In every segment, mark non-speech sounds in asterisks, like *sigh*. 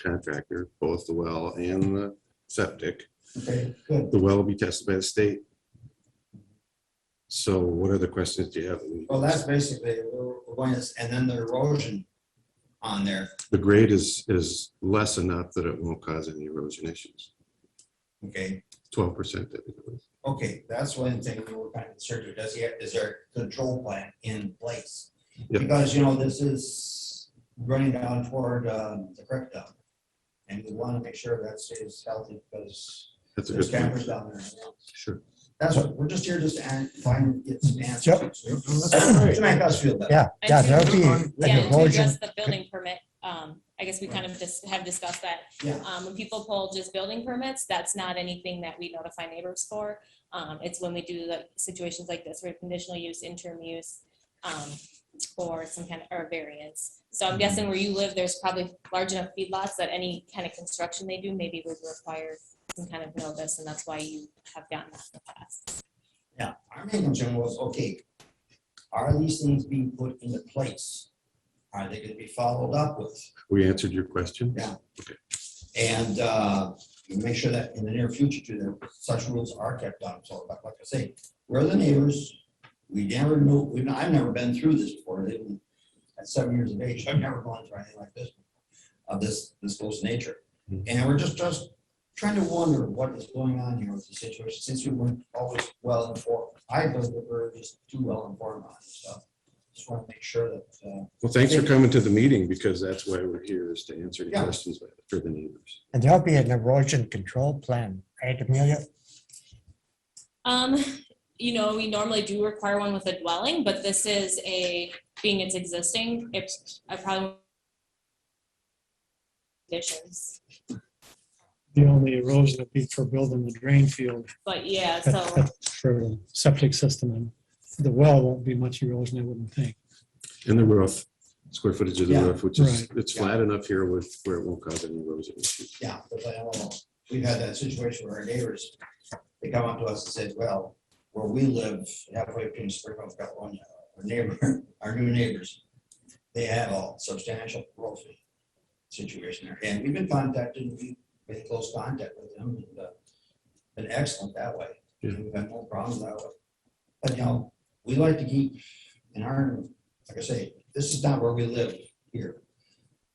contractor, both the well and the septic. Okay, good. The well will be tested by the state. So what other questions do you have? Well, that's basically the one is, and then the erosion on there. The grade is, is less enough that it won't cause any erosion issues. Okay, Twelve percent. that it was. okay, that's one thing we were kind of concerned with. Does he, have- is there a control plan in place? Yeah. Because, you know, this is running down toward um, the creek down. And we want to make sure that stays healthy because That's a there's good campers point. down there. you know. Sure. That's what, we're just here just to find, get some Yep. answers. To make us feel better. Yeah, And yeah, to- that would be Yeah, an and to erosion. address the building permit, um, I guess we kind of just have discussed that. Yeah. Um, when people pull just building permits, that's not anything that we notify neighbors for. Um, it's when we do like situations like this, where conditional use, interim use, um, or some kind of, or variance. So I'm guessing where you live, there's probably large enough feedlots that any kind of construction they do maybe would require some kind of notice, and that's why you have gotten that in the past. Yeah, our main concern was, okay, are these things being put into place? Are they gonna be followed up with? We answered your question. Yeah. And uh, make sure that in the near future, too, that such rules are kept on. So like like I say, we're the neighbors. We never knew, we've, I've never been through this before. Even At seven years of age, I've never gone through anything like this, of this, this close nature. Mhm. And we're just, just trying to wonder what is going on here with the situation, since we weren't always well informed. I thought we were just too well informed on stuff. Just want to make sure that, uh, Well, thanks for coming to the meeting because that's why we're here is to answer any Yeah. questions for the neighbors. And there'll be an erosion control plan, right, Amelia? Um, you know, we normally do require one with a dwelling, but this is a, being it's existing, it's, I probably. Conditions, The only erosion would be for building the drain field, but yeah, that- so, that- for the septic system, and the well won't be much erosion, I wouldn't think. And the roof, square footage of the Yeah. roof, which is, Right. it's flat enough here with, where it won't cause any erosion issues. Yeah, but I don't know. we've had that situation where our neighbors, they come up to us and said, well, where we live halfway between Springfield, California, our neighbor, *laughs* our new neighbors, they have a substantial roofing situation there. And we've been contacted, we've been in close contact with them and uh, been excellent that way. Yeah. We've had no problems that way. But you know, we like to keep in our, like I say, this is not where we live here.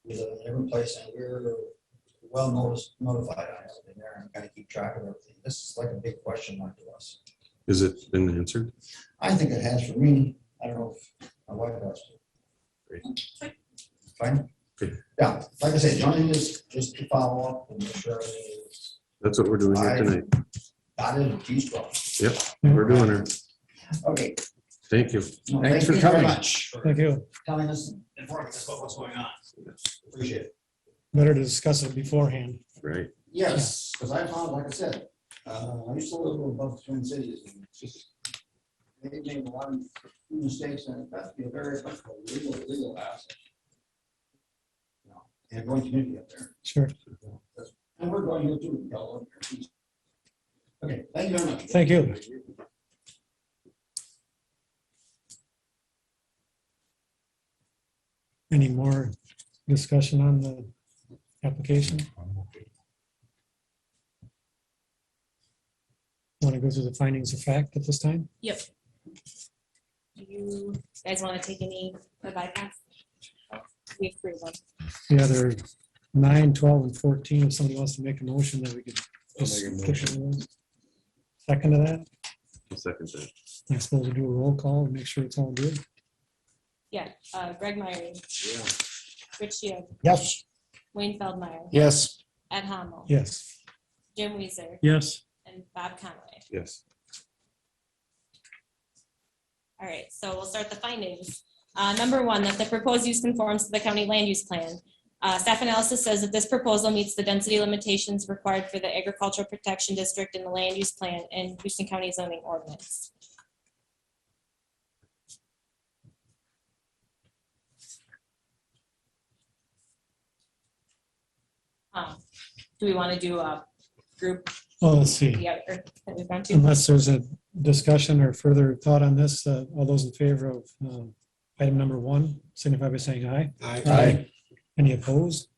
We live in a different place and we're well noticed, notified on everything there and gotta keep track of everything. This is like a big question mark to us. Is it been answered? I think it has for me. I don't know if my wife does. Fine? Good. Yeah, like I said, Johnny is just to follow up and make sure everything is That's what we're doing here Aye. tonight. dotted and T's crossed. We're doing it. Okay. Thank you. Well, Thanks thank for you very coming. much for Thank you. Telling us and informing us about what's going on. Appreciate it. Better to discuss it beforehand. Right. Yes, because I found, like I said, uh, I used to live above the Twin Cities. and it's just- They made a lot of mistakes and that's be a very legal, legal asset. You know, And going community up there. Sure. And we're going here too. y'all up there. Okay, thank you very much. Thank you. Any more discussion on the application? Want to go through the findings of fact at this time? yep. Do You guys want to take any for bypass? We approve them. The other nine, 12, and 14, if somebody wants to make a motion that we could. just skip it. Second to that, I'll Second that. I suppose we do a roll call and make sure it's all good. Yeah, uh, Greg Myrie. Rich Shield, Yes. Wayne Feldmeyer, Yes. Ed Hamel, Yes. Jim Weezer, Yes. and Bob Conway. Yes. All right, so we'll start the findings. Uh, Number one, that the proposed use conforms to the county land use plan. Uh, Staff analysis says that this proposal meets the density limitations required for the agricultural protection district in the land use plan and Houston County zoning ordinance. Um, Do we want to do a group, Well, let's see. the other that we've gone to? Unless there's a discussion or further thought on this, uh, all those in uh, favor of um, item number one, signify by saying aye. Any opposed?